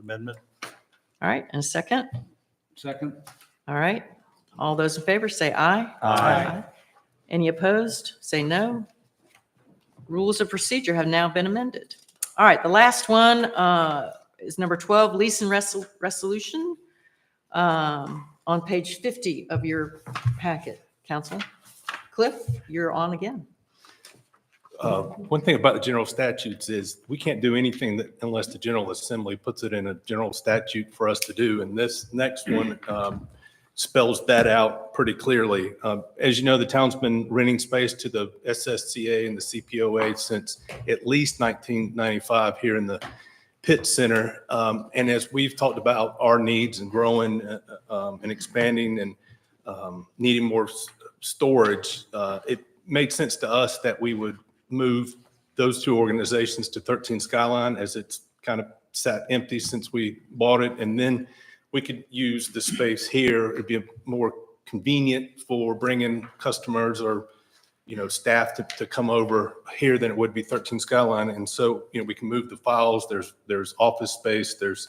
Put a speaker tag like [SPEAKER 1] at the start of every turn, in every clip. [SPEAKER 1] amendment.
[SPEAKER 2] All right, and a second?
[SPEAKER 3] Second?
[SPEAKER 2] All right. All those in favor say aye.
[SPEAKER 3] Aye.
[SPEAKER 2] Any opposed? Say no. Rules of procedure have now been amended. All right, the last one uh, is number 12, lease and resol- resolution um, on page 50 of your packet, council. Cliff, you're on again.
[SPEAKER 4] Uh, One thing about the general statutes is we can't do anything that unless the General Assembly puts it in a general statute for us to do. And this next one um, spells that out pretty clearly. Um, As you know, the town's been renting space to the SSCA and the CPOA since at least 1995 here in the Pitt Center. Um, And as we've talked about our needs and growing uh, uh, um, and expanding and um, needing more s- storage, uh, it made sense to us that we would move those two organizations to 13 Skyline as it's kind of sat empty since we bought it. And then we could use the space here. It'd be more convenient for bringing customers or, you know, staff to, to come over here than it would be 13 Skyline. And so, you know, we can move the files. There's, there's office space. There's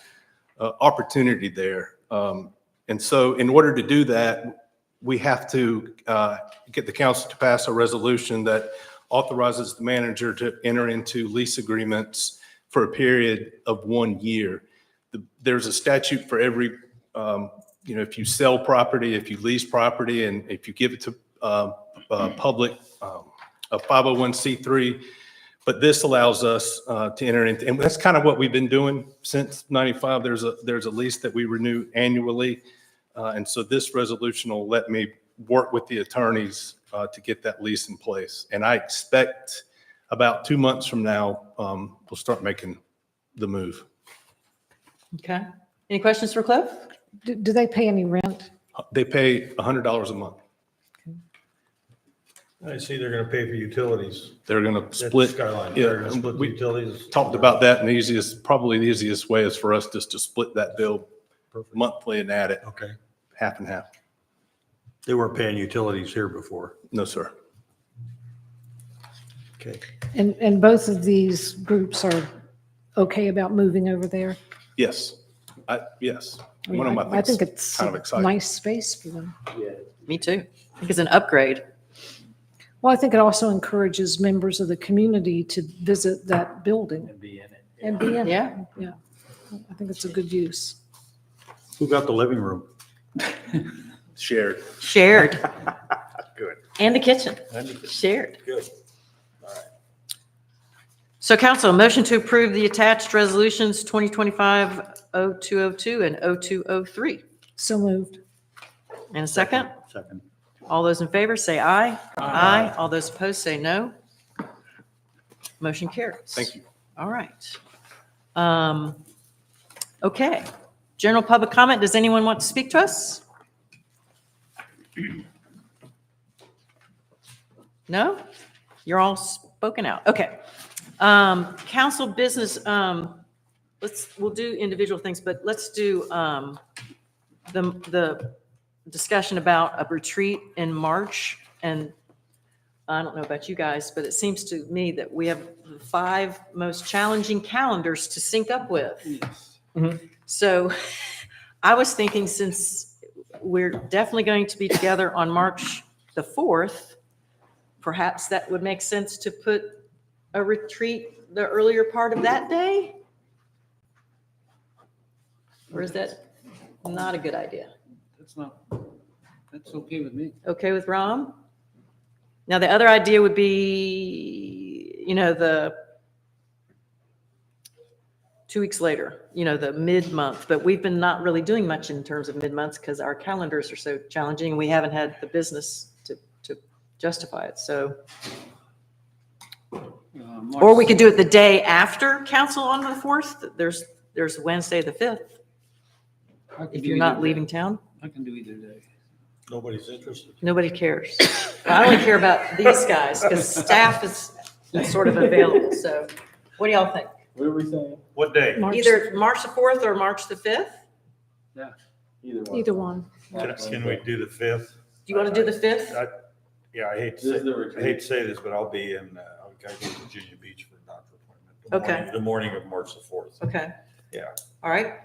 [SPEAKER 4] uh, opportunity there. Um, And so in order to do that, we have to uh, get the council to pass a resolution that authorizes the manager to enter into lease agreements for a period of one year. The- There's a statute for every, um, you know, if you sell property, if you lease property, and if you give it to uh, uh, public, um, a 501c3. But this allows us uh, to enter into, and that's kind of what we've been doing since 95. There's a, there's a lease that we renew annually. Uh, And so this resolution will let me work with the attorneys uh, to get that lease in place. And I expect about two months from now, um, we'll start making the move.
[SPEAKER 2] Okay. Any questions for Cliff?
[SPEAKER 5] Do, do they pay any rent?
[SPEAKER 4] They pay $100 a month.
[SPEAKER 1] I see they're going to pay for utilities.
[SPEAKER 4] They're going to
[SPEAKER 1] That's
[SPEAKER 4] split.
[SPEAKER 1] Skyline,
[SPEAKER 4] Yeah,
[SPEAKER 1] they're going to split the
[SPEAKER 4] we
[SPEAKER 1] utilities.
[SPEAKER 4] talked about that and the easiest, probably the easiest way is for us just to split that bill monthly and add it
[SPEAKER 1] Okay.
[SPEAKER 4] half and half.
[SPEAKER 1] They weren't paying utilities here before.
[SPEAKER 4] No, sir.
[SPEAKER 1] Okay.
[SPEAKER 5] And, and both of these groups are okay about moving over there?
[SPEAKER 4] Yes. I, yes. One of my
[SPEAKER 5] I think
[SPEAKER 4] things,
[SPEAKER 5] it's
[SPEAKER 4] kind of
[SPEAKER 5] a
[SPEAKER 4] exciting.
[SPEAKER 5] nice space for them.
[SPEAKER 2] Me too. I think it's an upgrade.
[SPEAKER 5] Well, I think it also encourages members of the community to visit that building. And be in it. And be in it.
[SPEAKER 2] Yeah.
[SPEAKER 5] Yeah. I think it's a good use.
[SPEAKER 1] Who got the living room?
[SPEAKER 4] Shared.
[SPEAKER 2] Shared. Good. And the kitchen. Shared.
[SPEAKER 1] Good.
[SPEAKER 2] So council, a motion to approve the attached resolutions 2025-0202 and 0203.
[SPEAKER 5] So moved.
[SPEAKER 2] And a second?
[SPEAKER 1] Second.
[SPEAKER 2] All those in favor say aye. Aye. All those opposed say no. Motion carries.
[SPEAKER 4] Thank you.
[SPEAKER 2] All right. Um, Okay. General public comment. Does anyone want to speak to us? No? You're all spoken out. Okay. Um, Council business, um, let's, we'll do individual things, but let's do um, the, the discussion about a retreat in March. And I don't know about you guys, but it seems to me that we have the five most challenging calendars to sync up with. So I was thinking since we're definitely going to be together on March the 4th, perhaps that would make sense to put a retreat the earlier part of that day? Or is that not a good idea?
[SPEAKER 3] That's not, that's okay with me.
[SPEAKER 2] Okay with Rom? Now, the other idea would be, you know, the two weeks later, you know, the mid-month, but we've been not really doing much in terms of mid-months because our calendars are so challenging. and We haven't had the business to, to justify it, so.
[SPEAKER 3] Uh,
[SPEAKER 2] Or we could do it the day after council on the 4th. There's, there's Wednesday, the 5th, if you're not leaving town.
[SPEAKER 3] I can do either day.
[SPEAKER 1] Nobody's interested.
[SPEAKER 2] Nobody cares. I only care about these guys because staff is sort of available. So what do y'all think?
[SPEAKER 6] What are we saying?
[SPEAKER 1] What day?
[SPEAKER 5] March-
[SPEAKER 2] Either March the 4th or March the 5th?
[SPEAKER 6] Either one.
[SPEAKER 5] Either one.
[SPEAKER 1] Can can we do the fifth?
[SPEAKER 2] Do you want to do the 5th?
[SPEAKER 1] I- Yeah, I hate
[SPEAKER 6] This
[SPEAKER 1] to
[SPEAKER 6] is
[SPEAKER 1] say,
[SPEAKER 6] the
[SPEAKER 1] I hate
[SPEAKER 6] retreat.
[SPEAKER 1] to say this, but I'll be in, uh, I'll gotta go to Virginia Beach for a doctor appointment. the
[SPEAKER 2] Okay.
[SPEAKER 1] morning- The morning of March the fourth.
[SPEAKER 2] Okay.
[SPEAKER 1] Yeah.
[SPEAKER 2] All right.